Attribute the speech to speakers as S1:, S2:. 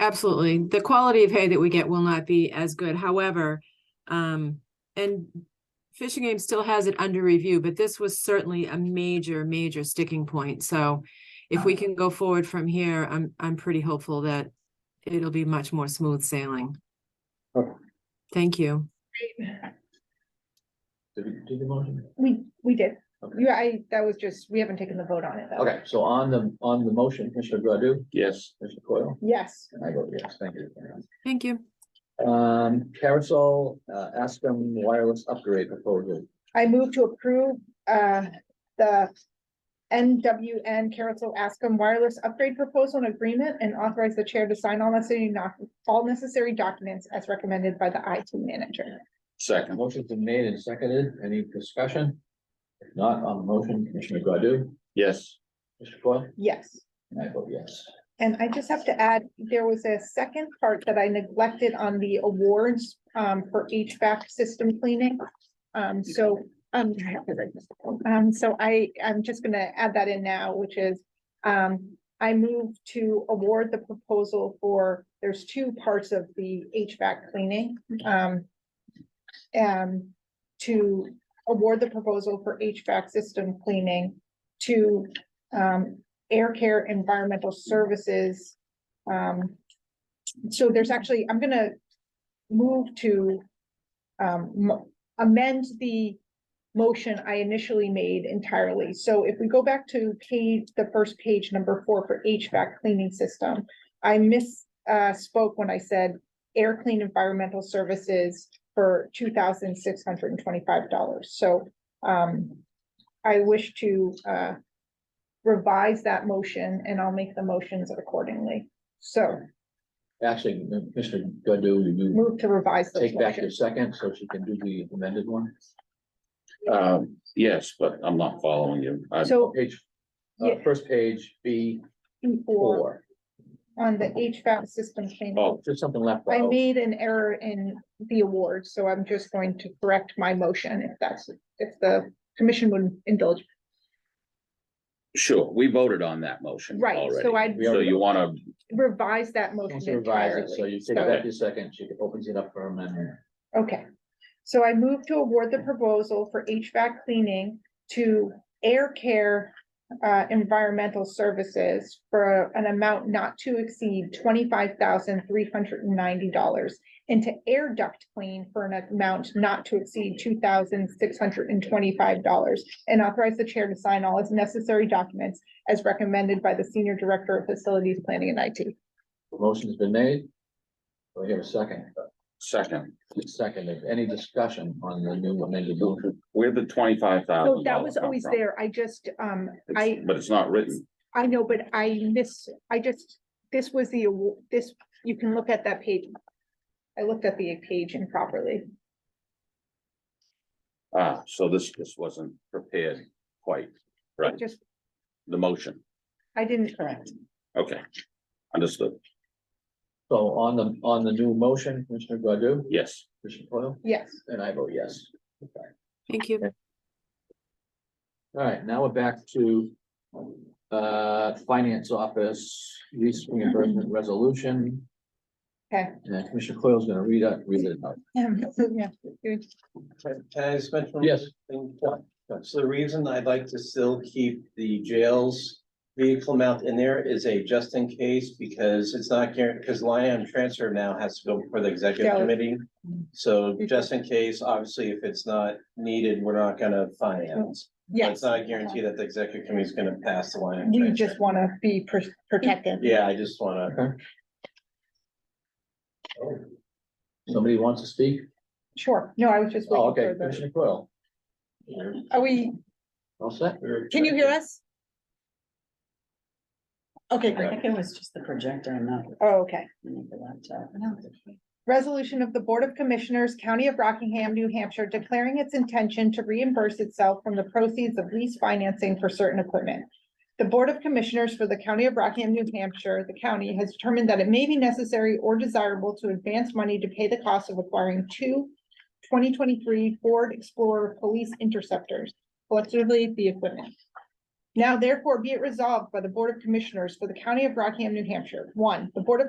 S1: Absolutely. The quality of hay that we get will not be as good. However, um, and Fish and Game still has it under review, but this was certainly a major, major sticking point. So if we can go forward from here, I'm, I'm pretty hopeful that it'll be much more smooth sailing.
S2: Okay.
S1: Thank you.
S2: Did we do the motion?
S3: We, we did.
S2: Okay.
S3: You, I, that was just, we haven't taken the vote on it though.
S2: Okay, so on the, on the motion, Commissioner Godu,
S4: Yes.
S2: Commissioner Coyle,
S3: Yes,
S2: and I vote yes, thank you.
S1: Thank you.
S2: Um, Carousel, uh, Aspen wireless upgrade proposal.
S3: I move to approve, uh, the NWN Carousel Ascom Wireless Upgrade Proposal and Agreement and authorize the chair to sign all necessary, not, all necessary documents as recommended by the IT manager.
S4: Second.
S2: Motion's been made and seconded. Any discussion? If not, on the motion, Commissioner Godu,
S4: Yes.
S2: Commissioner Coyle,
S3: Yes.
S2: and I vote yes.
S3: And I just have to add, there was a second part that I neglected on the awards um for HVAC system cleaning. Um, so, um, I have to write this down. Um, so I, I'm just gonna add that in now, which is, um, I move to award the proposal for, there's two parts of the HVAC cleaning, um. um, to award the proposal for HVAC system cleaning to, um, air care environmental services. Um, so there's actually, I'm gonna move to um, mo- amend the motion I initially made entirely. So if we go back to page, the first page, number four for HVAC cleaning system, I miss, uh, spoke when I said air clean environmental services for two thousand six hundred and twenty-five dollars. So, um, I wish to, uh, revise that motion and I'll make the motions accordingly. So
S2: Actually, Commissioner Godu, you
S3: move to revise those
S2: take back your
S3: motions.
S2: second so she can do the amended one.
S4: Um, yes, but I'm not following you. I-
S3: So
S2: Page, uh,
S3: Yeah.
S2: first page, B
S3: before,
S2: four,
S3: on the HVAC system change,
S4: Oh,
S2: there's something left.
S3: I
S2: out.
S3: made an error in the award, so I'm just going to correct my motion if that's, if the commission would indulge.
S4: sure, we voted on that motion
S3: Right,
S4: already.
S3: so I
S2: We
S4: So
S2: already-
S4: you wanna,
S3: revise that motion
S2: Also revise it, So
S3: entirely.
S2: you take
S3: So-
S2: back your second, she opens it up for amendment.
S3: Okay, so I move to award the proposal for HVAC cleaning to Air Care uh, Environmental Services for an amount not to exceed twenty-five thousand three hundred and ninety dollars and to Air Duct Clean for an amount not to exceed two thousand six hundred and twenty-five dollars and authorize the chair to sign all as necessary documents as recommended by the Senior Director of Facilities Planning and IT.
S2: The Motion's been made. Do I hear a second?
S4: second,
S2: Seconded. Any discussion on the new amended motion?
S4: where the twenty-five thousand?
S3: So that was always there. I just, um, I.
S4: But it's not written.
S3: I know, but I missed, I just, this was the, awa- this, you can look at that page. I looked at the page improperly.
S4: Ah, so this, this wasn't prepared quite, right,
S3: Just,
S4: the motion.
S3: I didn't correct.
S4: Okay, understood.
S2: So on the, on the new motion, Commissioner Godu,
S4: Yes, Oh,
S2: Commissioner Coyle,
S3: Yes,
S2: and I vote yes. Okay.
S1: Thank you.
S2: All right, now we're back to uh, Finance Office lease reimbursement resolution.
S3: Okay.
S2: And Commissioner Coyle's gonna read it, read it out.
S3: Um, yeah, good.
S5: Can can I just mention? one
S2: Yes.
S5: thing? So the reason I'd like to still keep the jails vehicle amount in there is a just in case because it's not guaranteed, because line item transfer now has to go before the executive
S3: Yeah. Mm-hmm.
S5: committee. So just in case, obviously, if it's not needed, we're not gonna finance. But
S3: Mm-hmm. yes.
S5: It's not a guarantee that the executive committee is gonna pass the line. item
S3: We
S5: transfer.
S3: just want to be pr- protected.
S5: Yeah, I just wanna,
S2: Somebody wants to speak?
S3: Sure. No, I was just
S2: Oh,
S3: waiting
S2: okay,
S3: for the,
S2: Commissioner Coyle.
S3: are we,
S2: All set?
S3: can you hear us? Okay,
S6: I
S3: great.
S6: think it was just the projector and not
S3: Oh, okay.
S6: the laptop.
S3: Resolution of the Board of Commissioners, County of Rockingham, New Hampshire, declaring its intention to reimburse itself from the proceeds of lease financing for certain equipment. The Board of Commissioners for the County of Rockingham, New Hampshire, the county has determined that it may be necessary or desirable to advance money to pay the cost of acquiring two 2023 Ford Explorer Police Interceptors, collectively the equipment. Now therefore be it resolved by the Board of Commissioners for the County of Rockingham, New Hampshire. One, the Board of